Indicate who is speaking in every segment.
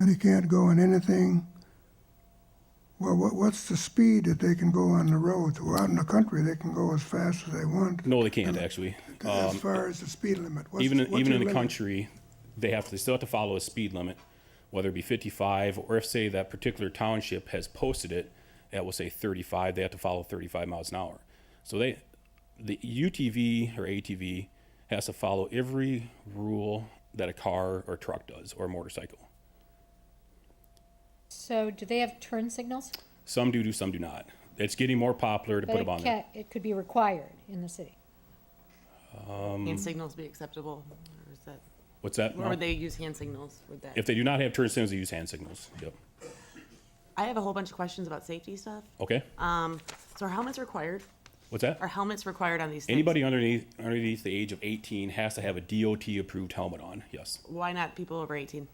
Speaker 1: and they can't go in anything. Well, what, what's the speed that they can go on the road? Well, out in the country, they can go as fast as they want.
Speaker 2: No, they can't actually.
Speaker 1: As far as the speed limit, what's,
Speaker 2: Um, Even,
Speaker 1: what's
Speaker 2: even
Speaker 1: your
Speaker 2: in the
Speaker 1: limit?
Speaker 2: country, they have, to- they still have to follow a speed limit, whether it be fifty-five, or if, say, that particular township has posted it, that will say thirty-five, they have to follow thirty-five miles an hour. So they, the UTV or ATV has to follow every rule that a car or truck does, or motorcycle.
Speaker 3: So do they have turn signals?
Speaker 2: Some do, do, some do not. It's getting more popular to
Speaker 3: But
Speaker 2: put
Speaker 3: it
Speaker 2: them on there.
Speaker 3: ca- It could be required in the city.
Speaker 4: Hand
Speaker 2: Mm-hmm.
Speaker 4: signals be acceptable, or is that,
Speaker 2: What's that?
Speaker 4: or
Speaker 2: Mel?
Speaker 4: would they use hand signals with that?
Speaker 2: If they do not have turn signals, they use hand signals. Yep.
Speaker 4: I have a whole bunch of questions about safety stuff.
Speaker 2: Okay.
Speaker 4: Um, so are helmets required?
Speaker 2: What's that?
Speaker 4: Are helmets required on these things?
Speaker 2: Anybody underneath underneath the age of 18 has to have a DOT approved helmet on. Yes.
Speaker 4: Why not people over eighteen?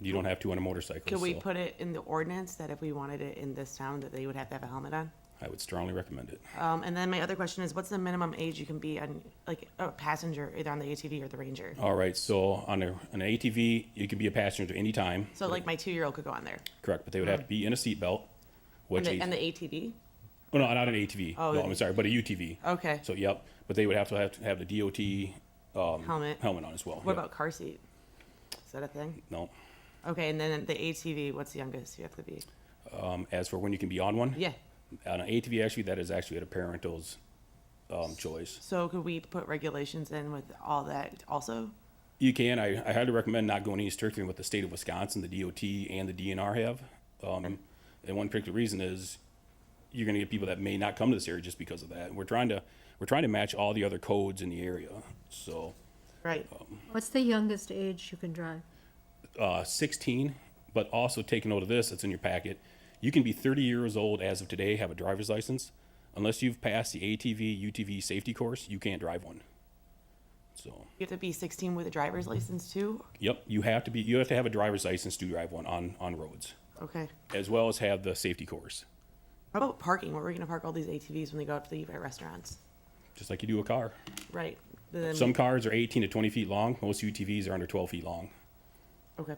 Speaker 2: You don't have to on a motorcycle.
Speaker 4: Could we
Speaker 2: so
Speaker 4: put it in the ordinance that if we wanted it in this town, that they would have to have a helmet on?
Speaker 2: I would strongly recommend it.
Speaker 4: Um, and then my other question is, what's the minimum age you can be on, like, a passenger, either on the ATV or the Ranger?
Speaker 2: All right. So on a, on an ATV, you can be a passenger at any time.
Speaker 4: So like my two-year-old could go on there,
Speaker 2: Correct. But they would have to be in a seatbelt.
Speaker 4: and
Speaker 2: Which
Speaker 4: the, and
Speaker 2: age-
Speaker 4: the ATV?
Speaker 2: oh, no, not an ATV.
Speaker 4: Oh,
Speaker 2: no,
Speaker 4: the-
Speaker 2: I'm sorry, but a UTV.
Speaker 4: Okay.
Speaker 2: So yep. But they would have to have to have the DOT
Speaker 4: Helmet.
Speaker 2: helmet on as well.
Speaker 4: What
Speaker 2: Yep.
Speaker 4: about car seat? Is that a thing?
Speaker 2: no?
Speaker 4: Okay, and then the ATV, what's the youngest you have to be?
Speaker 2: Um, as for when you can be on one,
Speaker 4: Yeah.
Speaker 2: On an ATV, actually, that is actually at a parental's um, choice.
Speaker 4: So could we put regulations in with all that also?
Speaker 2: You can. I, I highly recommend not going any stricter than what the state of Wisconsin, the DOT, and the DNR have. Um, and one particular reason is you're going to get people that may not come to this area just because of that. We're trying to we're trying to match all the other codes in the area. So
Speaker 4: Right.
Speaker 2: Oh.
Speaker 5: What's the youngest age you can drive?
Speaker 2: uh, 16, but also take note of this. It's in your packet. You can be 30 years old as of today, have a driver's license, unless you've passed the ATV UTV safety course. You can't drive one. So.
Speaker 4: You have to be 16 with a driver's license too?
Speaker 2: Yep, you have to be. You have to have a driver's license to drive one on on roads,
Speaker 4: Okay.
Speaker 2: as well as have the safety course,
Speaker 4: How about parking? Where are we gonna park all these ATVs when they go out to the Evite restaurants?
Speaker 2: just like you do a car.
Speaker 4: Right. Then,
Speaker 2: Some cars are 18 to 20 feet long. Most UTVs are under 12 feet long.
Speaker 4: okay.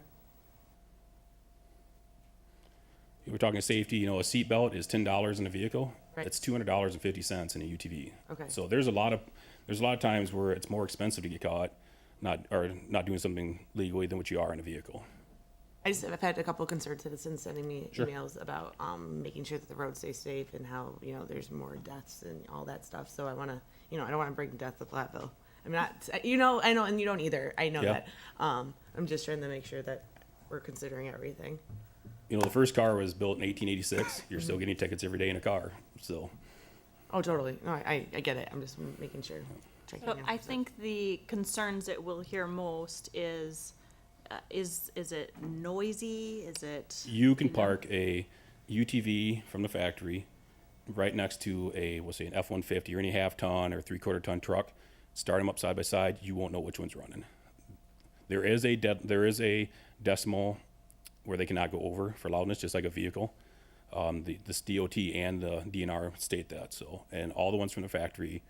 Speaker 2: If we're talking safety, you know, a seatbelt is ten dollars in a vehicle.
Speaker 4: Right.
Speaker 2: It's two hundred dollars and fifty cents in a UTV.
Speaker 4: Okay.
Speaker 2: So there's a lot of there's a lot of times where it's more expensive to get caught, not or not doing something legally than what you are in a vehicle.
Speaker 4: I just, I've had a couple of concerned citizens sending me
Speaker 2: Sure.
Speaker 4: emails about, um, making sure that the roads stay safe and how, you know, there's more deaths and all that stuff. So I wanna, you know, I don't wanna bring death to Platteville. I'm not, you know, I know, and you don't either. I know
Speaker 2: Yeah.
Speaker 4: that. Um, I'm just trying to make sure that we're considering everything.
Speaker 2: You know, the first car was built in 1886. You're
Speaker 4: Mm-hmm.
Speaker 2: still getting tickets every day in a car. So
Speaker 4: Oh, totally. No, I, I get it. I'm just making sure. checking
Speaker 6: So
Speaker 4: in.
Speaker 6: I think the concerns that we'll hear most is, uh, is, is it noisy? Is it,
Speaker 2: you can park a UTV from the factory right next to a we'll say an F one fifty or any half ton or three quarter ton truck. Start them up side by side. You won't know which one's running. There is a de- there is a decimal where they cannot go over for loudness, just like a vehicle. Um, the this DOT and the DNR state that so, and all the ones from the factory,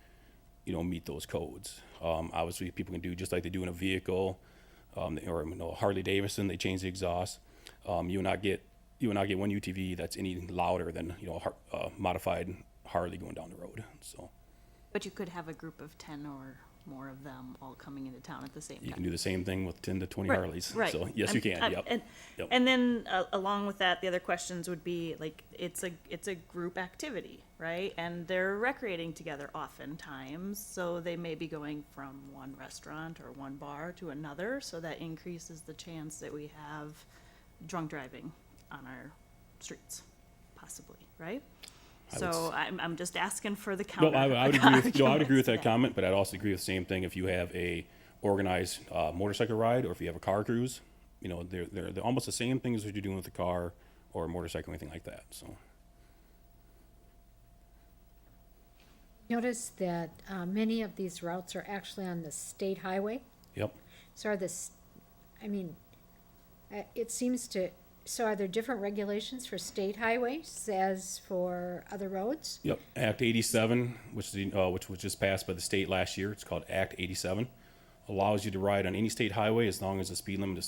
Speaker 2: you know, meet those codes. Um, obviously, people can do just like they do in a vehicle, um, or you know, Harley Davidson. They change the exhaust. Um, you will not get you will not get one UTV that's any louder than you know a har- uh, modified Harley going down the road. So
Speaker 6: but you could have a group of ten or more of them all coming into town at the same time.
Speaker 2: you can do the same thing with ten to twenty
Speaker 6: Right,
Speaker 2: Harleys.
Speaker 6: Right.
Speaker 2: So yes,
Speaker 6: I'm-
Speaker 2: you can.
Speaker 6: I'm-
Speaker 2: yep.
Speaker 6: And,
Speaker 2: Yep.
Speaker 6: and then uh, along with that, the other questions would be like it's a it's a group activity, right? And they're recreating together oftentimes, so they may be going from one restaurant or one bar to another, so that increases the chance that we have drunk driving on our streets, possibly, right?
Speaker 2: I would
Speaker 6: so I'm, I'm just asking for the
Speaker 2: No,
Speaker 6: counter.
Speaker 2: I, would- I would agree. With, no, I would agree with
Speaker 6: arguments to
Speaker 2: that comment, but I'd also agree with the same thing if you have a organized uh, motorcycle ride or if you have a car cruise. You know, they're they're, they're almost the same things that you're doing with a car or a motorcycle, anything like that. So
Speaker 3: Notice that uh, many of these routes are actually on the state highway.
Speaker 2: yep.
Speaker 3: So are this, I mean, uh, it seems to, so are there different regulations for state highways as for other roads?
Speaker 2: Yep, Act 87, which is the, uh, which was just passed by the state last year. It's called Act 87. Allows you to ride on any state highway as long as the speed limit is